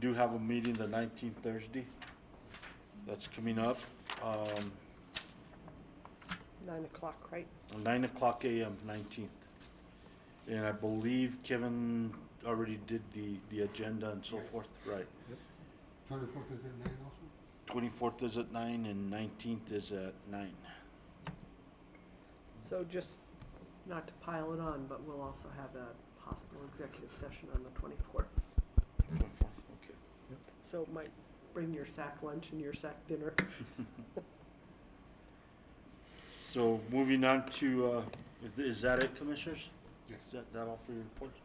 do have a meeting the nineteenth Thursday. That's coming up, um, Nine o'clock, right? nine o'clock AM, nineteenth. And I believe Kevin already did the, the agenda and so forth, right? Twenty-fourth is at nine also? Twenty-fourth is at nine and nineteenth is at nine. So just not to pile it on, but we'll also have a possible executive session on the twenty-fourth. 24th, okay. So it might bring your sack lunch and your sack dinner. So moving on to, uh, is- is that it, commissioners? Yes. Is that, that all for your reports?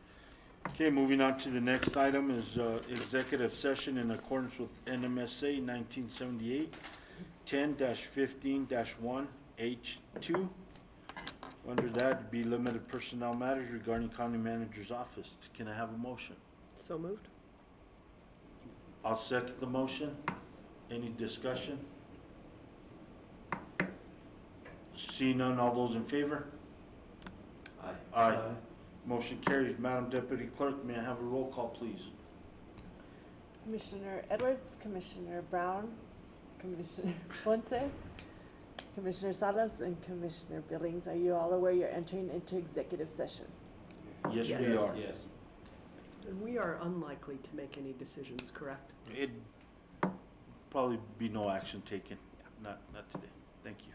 Okay, moving on to the next item is, uh, executive session in accordance with NMSA nineteen seventy-eight, ten fifteen one H two. Under that, it'd be limited personnel matters regarding county manager's office. Can I have a motion? So moved? I'll second the motion. Any discussion? Seeing none, all those in favor? Aye. Aye. Motion carries. Madam Deputy Clerk, may I have a roll call, please? Commissioner Edwards, Commissioner Brown, Commissioner Ponce, Commissioner Salas, and Commissioner Billings, are you all aware you're entering into executive session? Yes, we Yes. are. Yes. And we are unlikely to make any decisions, correct? It'd probably be no action taken. Not, not today. Thank you.